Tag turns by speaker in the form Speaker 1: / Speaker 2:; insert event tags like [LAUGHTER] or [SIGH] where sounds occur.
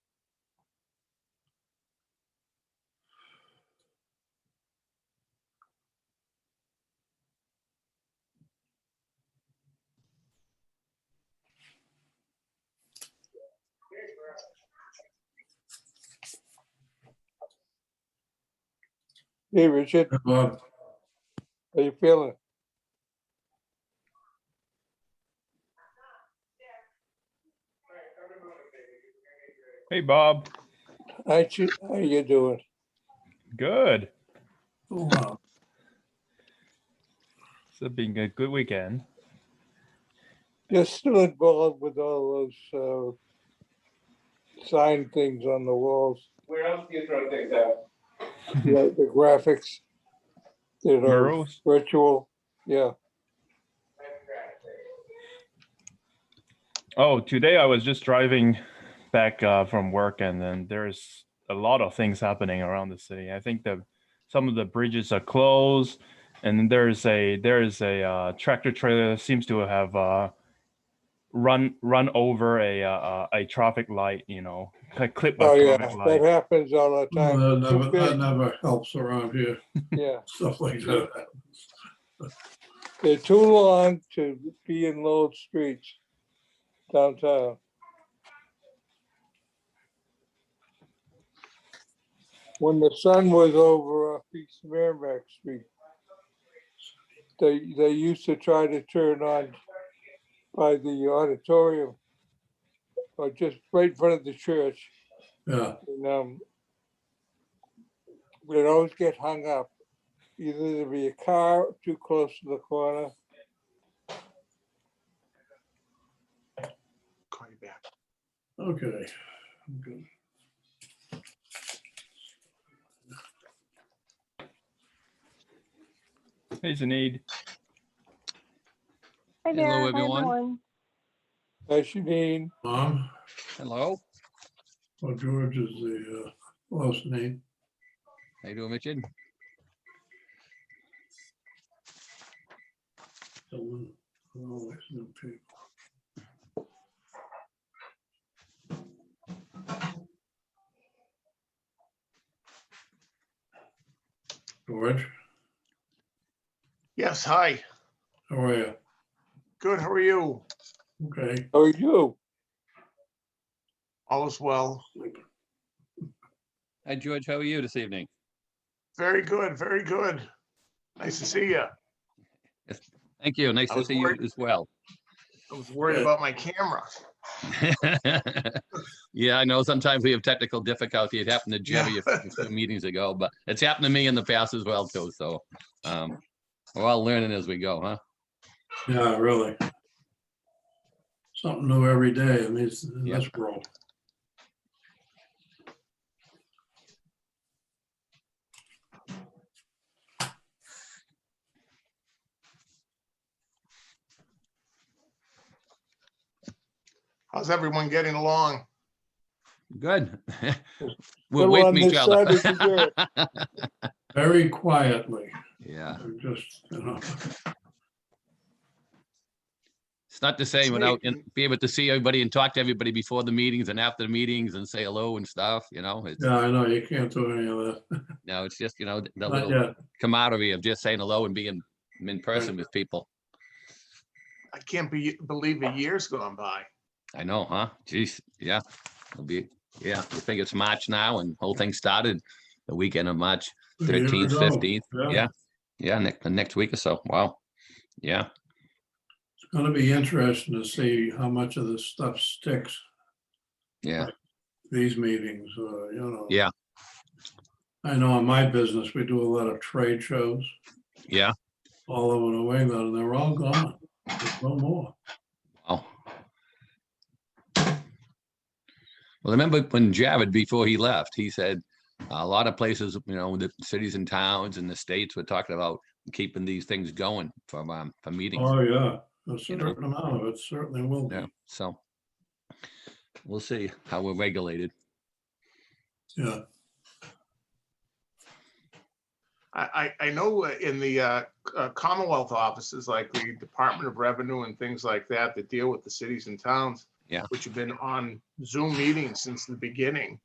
Speaker 1: Hey, Richard,
Speaker 2: Hi, Bob.
Speaker 1: how you feeling?
Speaker 3: Hey, Bob.
Speaker 1: Hi, Chi- How you doing?
Speaker 3: Good.
Speaker 2: Oh, wow.
Speaker 3: It's been a good weekend.
Speaker 1: You're still involved with all those uh, sign things on the walls,
Speaker 4: Where else do you throw things out?
Speaker 1: the the graphics that are
Speaker 3: Murals?
Speaker 1: virtual. Yeah,
Speaker 3: Oh, today I was just driving back uh, from work, and then there's a lot of things happening around the city. I think the some of the bridges are closed, and there's a there is a uh, tractor trailer that seems to have uh, run run over a uh, a traffic light. You know, clip by
Speaker 1: oh, yeah,
Speaker 3: traffic
Speaker 1: that
Speaker 3: light.
Speaker 1: happens all the time.
Speaker 2: That never, that never helps around here, [LAUGHS]
Speaker 1: Yeah,
Speaker 2: stuff like that.
Speaker 1: they're too long to be in Lowell streets downtown. When the sun was over off East Merrimack Street, they, they used to try to turn on by the auditorium or just right in front of the church.
Speaker 2: Yeah,
Speaker 1: And, um, we'd always get hung up. Either there'd be a car too close to the corner.
Speaker 2: okay. Okay.
Speaker 3: Hey, Zaid.
Speaker 5: Hi
Speaker 6: Hello,
Speaker 5: there. Hi,
Speaker 6: everyone.
Speaker 1: Hi, Janine.
Speaker 2: Mom,
Speaker 6: Hello.
Speaker 2: or George is the uh, last name.
Speaker 6: How you doing, Richard?
Speaker 2: Someone always knew people. George,
Speaker 7: Yes, hi.
Speaker 2: how are you?
Speaker 7: Good, how are you?
Speaker 2: Okay,
Speaker 1: How are you?
Speaker 7: All is well.
Speaker 6: Hi, George. How are you this evening?
Speaker 7: Very good, very good. Nice to see you.
Speaker 6: Thank you. Nice
Speaker 7: I
Speaker 6: to
Speaker 7: was
Speaker 6: see you
Speaker 7: worried-
Speaker 6: as well. [LAUGHS]
Speaker 7: I was worried about my camera.
Speaker 6: Yeah, I know sometimes we have technical difficulty. It happened to Jimmy a
Speaker 7: Yeah.
Speaker 6: few- a few meetings ago, but it's happened to me in the past as well too, so. um, We're all learning as we go, huh?
Speaker 2: yeah, really. Something new every day in this, in
Speaker 6: Yeah.
Speaker 2: this world.
Speaker 7: How's everyone getting along?
Speaker 6: Good. [LAUGHS] We're
Speaker 1: Come
Speaker 6: away
Speaker 1: on
Speaker 6: from each
Speaker 1: this side
Speaker 6: other.
Speaker 1: of the dirt.
Speaker 2: Very quietly,
Speaker 6: [LAUGHS] Yeah,
Speaker 2: just, you know.
Speaker 6: it's not the same without in- be able to see everybody and talk to everybody before the meetings and after the meetings and say hello and stuff, you know? It's,
Speaker 2: Yeah, I know, you can't do any of that.
Speaker 6: no, it's just, you know, the
Speaker 2: Not
Speaker 6: little
Speaker 2: yet.
Speaker 6: camaraderie of just saying hello and being in person with people.
Speaker 7: I can't be, believe a year's gone by.
Speaker 6: I know, huh? Jeez, yeah. It'll be, yeah, you think it's March now and whole thing started the weekend of March
Speaker 2: A year
Speaker 6: thirteenth,
Speaker 2: ago.
Speaker 6: fifteenth. Yeah, yeah, next, the next week or so. Wow. Yeah,
Speaker 2: It's gonna be interesting to see how much of this stuff sticks,
Speaker 6: yeah,
Speaker 2: these meetings, uh, you know.
Speaker 6: Yeah.
Speaker 2: I know in my business, we do a lot of trade shows
Speaker 6: yeah.
Speaker 2: all over New England, and they're all gone. There's No more.
Speaker 6: Wow. Well, remember when Jared, before he left, he said a lot of places, you know, the cities and towns and the states were talking about keeping these things going from, um, for meetings.
Speaker 2: Oh, yeah, a
Speaker 6: You know.
Speaker 2: certain amount of it certainly will be.
Speaker 6: Yeah, so we'll see how we're regulated.
Speaker 2: Yeah,
Speaker 7: I, I, I know uh, in the uh, uh, Commonwealth offices, like the Department of Revenue and things like that, that deal with the cities and towns.
Speaker 6: Yeah.
Speaker 7: Which have been on Zoom meetings since the beginning.